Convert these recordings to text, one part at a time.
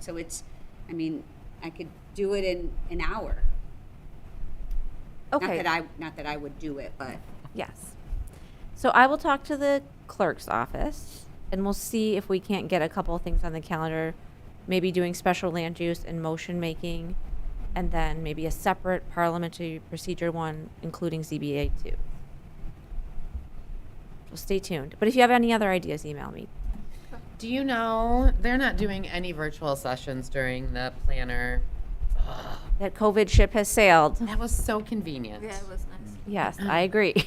So it's, I mean, I could do it in an hour. Okay. Not that I, not that I would do it, but Yes. So I will talk to the clerk's office and we'll see if we can't get a couple of things on the calendar, maybe doing special land use and motion making, and then maybe a separate parliamentary procedure one, including ZBA too. So stay tuned. But if you have any other ideas, email me. Do you know they're not doing any virtual sessions during the planner? Ugh, That COVID ship has sailed. that was so convenient. Yeah, it was nice. Yes, I agree.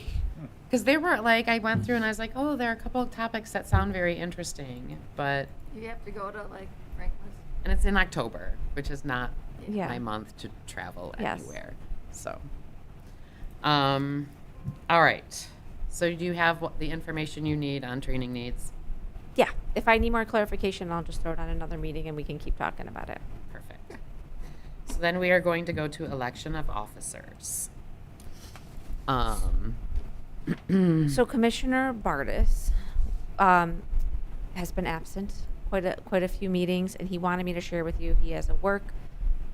Because there were like, I went through and I was like, oh, there are a couple of topics that sound very interesting, but, You have to go to like Franklin's. and it's in October, which is not Yeah. my month to travel Yes. anywhere. So, um, all right. So do you have what, the information you need on training needs? Yeah, if I need more clarification, I'll just throw it on another meeting and we can keep talking about it. Perfect. So then we are going to go to election of officers. Um, So Commissioner Bartis um, has been absent quite a, quite a few meetings, and he wanted me to share with you, he has a work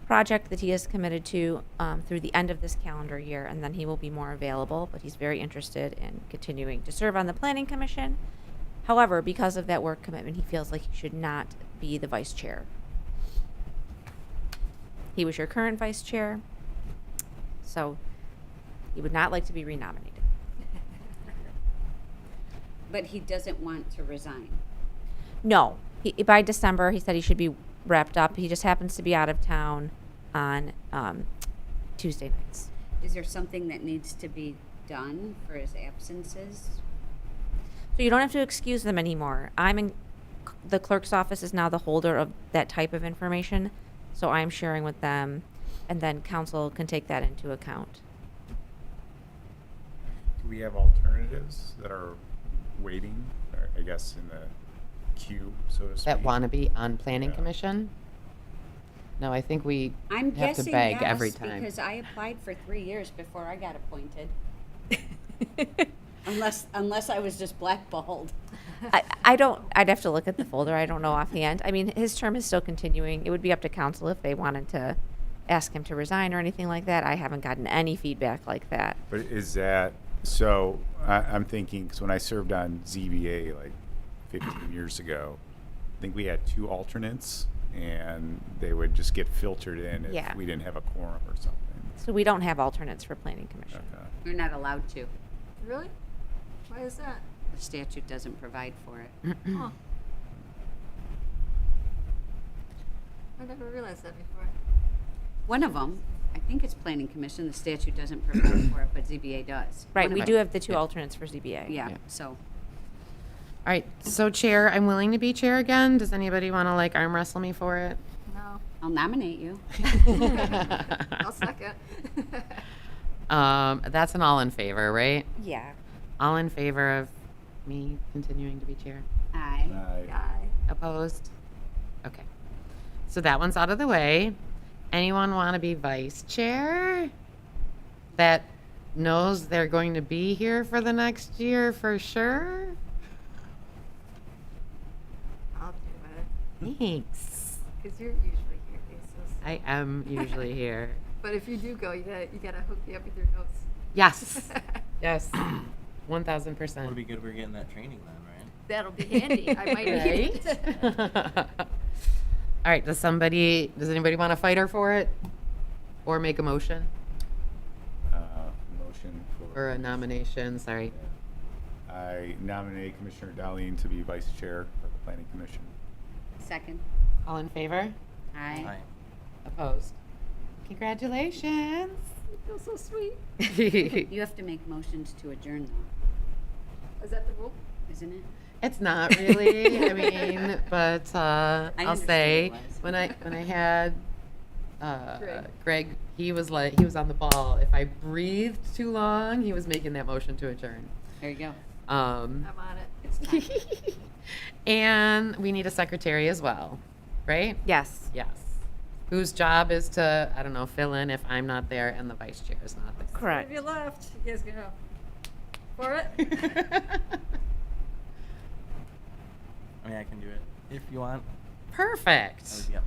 project that he is committed to um, through the end of this calendar year, and then he will be more available, but he's very interested in continuing to serve on the Planning Commission. However, because of that work commitment, he feels like he should not be the vice chair. He was your current vice chair, so he would not like to be renominated. but he doesn't want to resign. No, he, by December, he said he should be wrapped up. He just happens to be out of town on um, Tuesday nights. Is there something that needs to be done for his absences? So you don't have to excuse them anymore. I'm in the clerk's office is now the holder of that type of information, so I'm sharing with them, and then council can take that into account. Do we have alternatives that are waiting, or I guess, in the queue, so to speak? that want to be on planning Yeah. commission? No, I think we I'm have to guessing beg every yes, time. because I applied for three years before I got appointed. Unless, unless I was just blackballed. I, I don't. I'd have to look at the folder. I don't know offhand. I mean, his term is still continuing. It would be up to council if they wanted to ask him to resign or anything like that. I haven't gotten any feedback like that. But is that, so, I, I'm thinking, because when I served on ZBA like fifteen years ago, I think we had two alternates, and they would just get filtered in Yeah. if we didn't have a quorum or something. So we don't have alternates for planning commission. Okay. You're not allowed to. Really? Why is that? The statute doesn't provide for it. Huh. I never realized that before. One of them, I think it's planning commission, the statute doesn't provide for it, but ZBA does. Right, One we of do them. have the two alternates for ZBA. Yeah, Yeah. so. All right, so chair, I'm willing to be chair again. Does anybody want to like arm wrestle me for it? No, I'll nominate you. I'll suck it. Um, that's an all in favor, right? Yeah. All in favor of me continuing to be chair? Aye. I- Guy. Opposed? Okay. So that one's out of the way. Anyone want to be vice chair? That knows they're going to be here for the next year for sure? I'll do it. Thanks. Because you're usually here, Aces. I am usually here. But if you do go, you gotta, you gotta hook me up with your notes. Yes. Yes. 1000%. Would be good if we were getting that training then, right? That'll be handy. I might need it. All right. Does somebody, does anybody want to fight her for it? Or make a motion Uh, Motion or for, a nomination? Sorry. I nominate Commissioner Darlene to be vice chair of the planning commission. Second. All in favor? Aye. Aye. Opposed? Congratulations. You're so sweet. it's You have to make motions to adjourn though, Is that the rule? isn't it? not really. I mean, but uh, I I'll understand say it was. when I when I had uh, Greg. Greg. he was like he was on the ball. If I breathed too long, he was making that motion to adjourn. There you go. Um, I'm on it. and we need a secretary as well, right? Yes. Yes. Whose job is to I don't know fill in if I'm not there and the vice chair is not there. Have you left? You guys go. For it? Correct. I mean, I can do it if you want. I Perfect. would be